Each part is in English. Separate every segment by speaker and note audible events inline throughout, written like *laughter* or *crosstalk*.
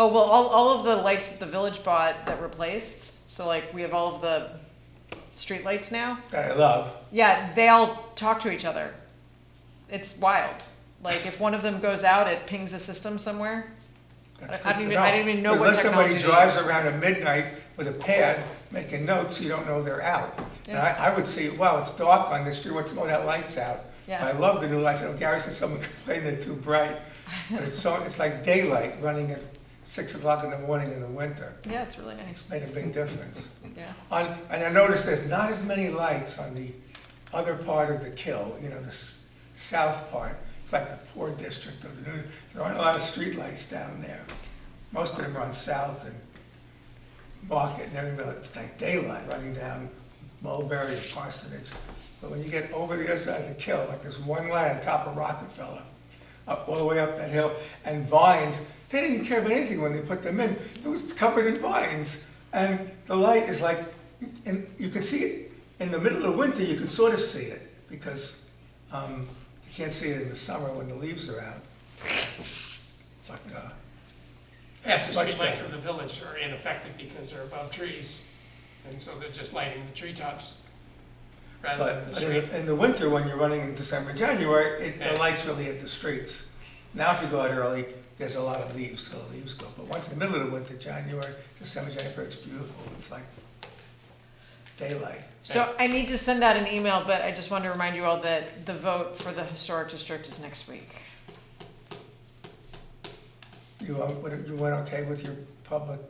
Speaker 1: Oh, well, all, all of the lights that the village bought that replaced, so like we have all of the street lights now.
Speaker 2: that I love.
Speaker 1: Yeah, they all talk to each other. It's wild. Like if one of them goes out, it pings a system somewhere.
Speaker 2: That's
Speaker 1: I- I didn't
Speaker 2: good to
Speaker 1: even- I didn't even know what
Speaker 2: Unless somebody
Speaker 1: technology
Speaker 2: drives around at midnight with a pad making notes, you don't know they're out. And I, I would see, wow, it's dark on this street, what's, oh, that light's out.
Speaker 1: Yeah.
Speaker 2: I love the new lights, I know Gary said someone *laughs* complained they're too bright, but it's so, it's like daylight running at six o'clock in the morning in the winter.
Speaker 1: Yeah, it's really nice.
Speaker 2: Made a big difference.
Speaker 1: Yeah.
Speaker 2: On, and I noticed there's not as many lights on the other part of the kill, you know, the s- south part. It's like the poor district of the, new- there aren't a lot of streetlights down there. Most of them are on South and Market and everything, but it's like daylight running down Mulberry and Parsonage. But when you get over the other side of the kill, like there's one light on top of Rockefeller, up, all the way up that hill, and vines, they didn't care about anything when they put them in. It was covered in vines. And the light is like, and you can see it, in the middle of winter, you can sort of see it, because um, you can't see it in the summer when the leaves are out. But, uh,
Speaker 3: Half the
Speaker 2: Much
Speaker 3: streetlights
Speaker 2: better.
Speaker 3: in the village are ineffective because they're above trees, and so they're just lighting the treetops rather than the
Speaker 2: But in
Speaker 3: street.
Speaker 2: the, in the winter, when you're running in December, January, it, the
Speaker 3: Yeah.
Speaker 2: lights really hit the streets. Now, if you go out early, there's a lot of leaves, so the leaves go. But once in the middle of the winter, January, December, January, it's beautiful. It's like daylight.
Speaker 1: So I need to send out an email, but I just want to remind you all that the vote for the historic district is next week.
Speaker 2: You, uh, what- you went okay with your public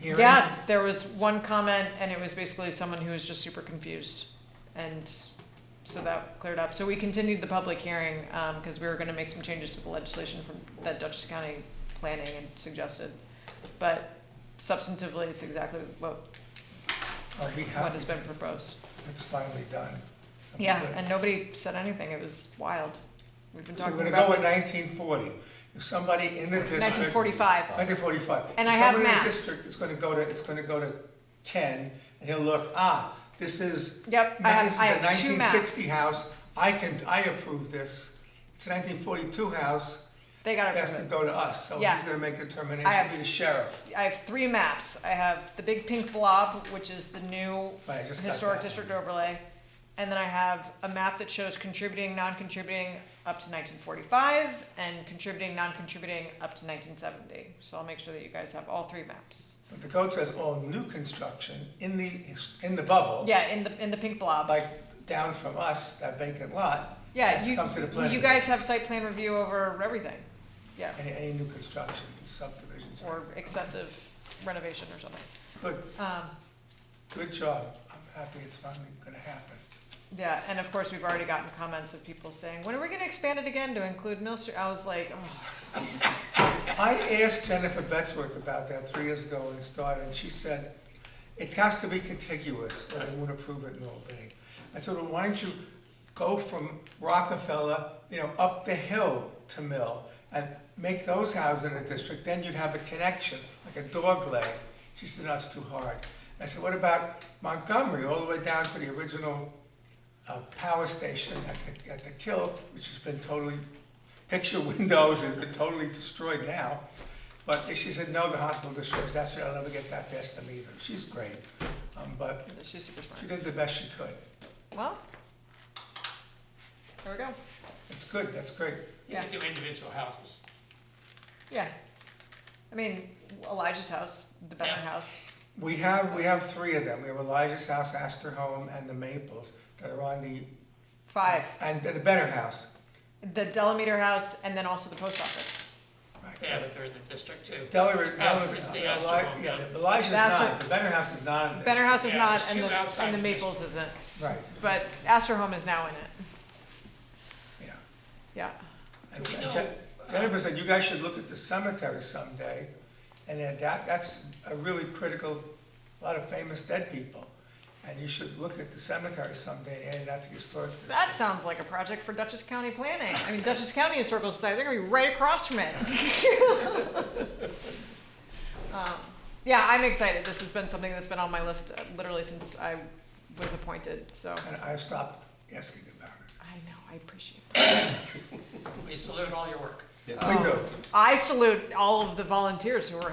Speaker 2: hearing?
Speaker 1: Yeah, there was one comment and it was basically someone who was just super confused. And so that cleared up. So we continued the public hearing because we were going to make some changes to the legislation from that Dutchess County planning and suggested. But substantively, it's exactly what,
Speaker 2: I'll be
Speaker 1: what
Speaker 2: happy.
Speaker 1: has been proposed.
Speaker 2: It's finally done.
Speaker 1: Yeah,
Speaker 2: Good.
Speaker 1: and nobody said anything. It was wild. We've been
Speaker 2: So
Speaker 1: talking
Speaker 2: we're gonna
Speaker 1: about
Speaker 2: go with
Speaker 1: this-
Speaker 2: nineteen forty. If somebody in the district.
Speaker 1: 1945.
Speaker 2: 1945.
Speaker 1: And
Speaker 2: If
Speaker 1: I have
Speaker 2: somebody in the
Speaker 1: maps.
Speaker 2: district is gonna go to, it's gonna go to Ken, and he'll look, ah, this is.
Speaker 1: Yep, I have-
Speaker 2: this is
Speaker 1: I
Speaker 2: a
Speaker 1: have two maps.
Speaker 2: 1960 house, I can, I approve this. It's a 1942 house,
Speaker 1: They got
Speaker 2: it
Speaker 1: it.
Speaker 2: has to
Speaker 1: covered.
Speaker 2: go to us, so he's
Speaker 1: Yeah.
Speaker 2: gonna make a determination,
Speaker 1: I have-
Speaker 2: be the sheriff.
Speaker 1: I have three maps. I have the big pink blob, which is the new
Speaker 2: Right, I just got
Speaker 1: historic
Speaker 2: that.
Speaker 1: district overlay. And then I have a map that shows contributing, non-contributing up to nineteen forty-five and contributing, non-contributing up to nineteen seventy. So I'll make sure that you guys have all three maps.
Speaker 2: But the code says all new construction in the, in the bubble.
Speaker 1: Yeah, in the, in the pink blob.
Speaker 2: Like down from us, that vacant lot.
Speaker 1: Yeah,
Speaker 2: has to
Speaker 1: you,
Speaker 2: come to the planning
Speaker 1: you guys have site plan review over everything. Yeah,
Speaker 2: Any, any new construction, subdivisions.
Speaker 1: or excessive renovation or something.
Speaker 2: Good,
Speaker 1: Um,
Speaker 2: good job. I'm happy it's finally gonna happen.
Speaker 1: Yeah, and of course, we've already gotten comments of people saying, when are we gonna expand it again to include Mill Street? I was like, oh,
Speaker 2: I asked Jennifer Betzworth about that three years ago when it started, and she said, it has to be contiguous, or they won't approve it in Albany. I said, well, why don't you go from Rockefeller, you know, up the hill to Mill, and make those houses in a district, then you'd have a connection, like a dog leg. She said, that's too hard. I said, what about Montgomery, all the way down to the original uh, power station at the, at the kill, which has been totally, picture *laughs* windows has been totally destroyed now. But she said, no, the hospital destroys, that's why I'll never get that past them either. She's great, um, but
Speaker 1: she's super
Speaker 2: she
Speaker 1: smart.
Speaker 2: did the best she could.
Speaker 1: Well, there we go.
Speaker 2: It's good, that's great.
Speaker 3: You
Speaker 1: Yeah,
Speaker 3: can do individual houses.
Speaker 1: yeah. I mean, Elijah's house, the Benner
Speaker 3: Yeah.
Speaker 1: house.
Speaker 2: We have, we have three of them. We have Elijah's House, Astor Home, and the Maples that are on the.
Speaker 1: Five,
Speaker 2: And the Benner House.
Speaker 1: the Delameter house, and then also the post office.
Speaker 3: Yeah, but they're in the district too.
Speaker 2: Delaware.
Speaker 3: Astor is the Astor Home,
Speaker 2: Yeah,
Speaker 3: yeah.
Speaker 2: Elijah's
Speaker 1: The Astor-
Speaker 2: not, the Benner House is not. in this.
Speaker 1: Benner house is
Speaker 3: Yeah,
Speaker 1: not,
Speaker 3: there's
Speaker 1: and
Speaker 3: two
Speaker 1: the,
Speaker 3: outside
Speaker 1: and the
Speaker 3: of this
Speaker 1: Maples isn't,
Speaker 2: Right,
Speaker 1: but Astor Home is now in it,
Speaker 2: yeah.
Speaker 1: yeah.
Speaker 2: And
Speaker 3: Do we
Speaker 2: Je-
Speaker 3: know, uh,
Speaker 2: Je- Jennifer said, you guys should look at the cemetery someday, and then that, that's a really critical, a lot of famous dead people. And you should look at the cemetery someday and add that to your story.
Speaker 1: That sounds like a project for Dutchess County Planning. I mean, Dutchess County Historical Society, they're gonna be right across from it. *laughs* Um, Yeah, I'm excited. This has been something that's been on my list uh, literally since I was appointed, so
Speaker 2: And I stopped asking about
Speaker 1: I know, I appreciate it.
Speaker 3: We salute all your work.
Speaker 2: it. We do.
Speaker 3: Oh.
Speaker 1: I salute all of the volunteers who are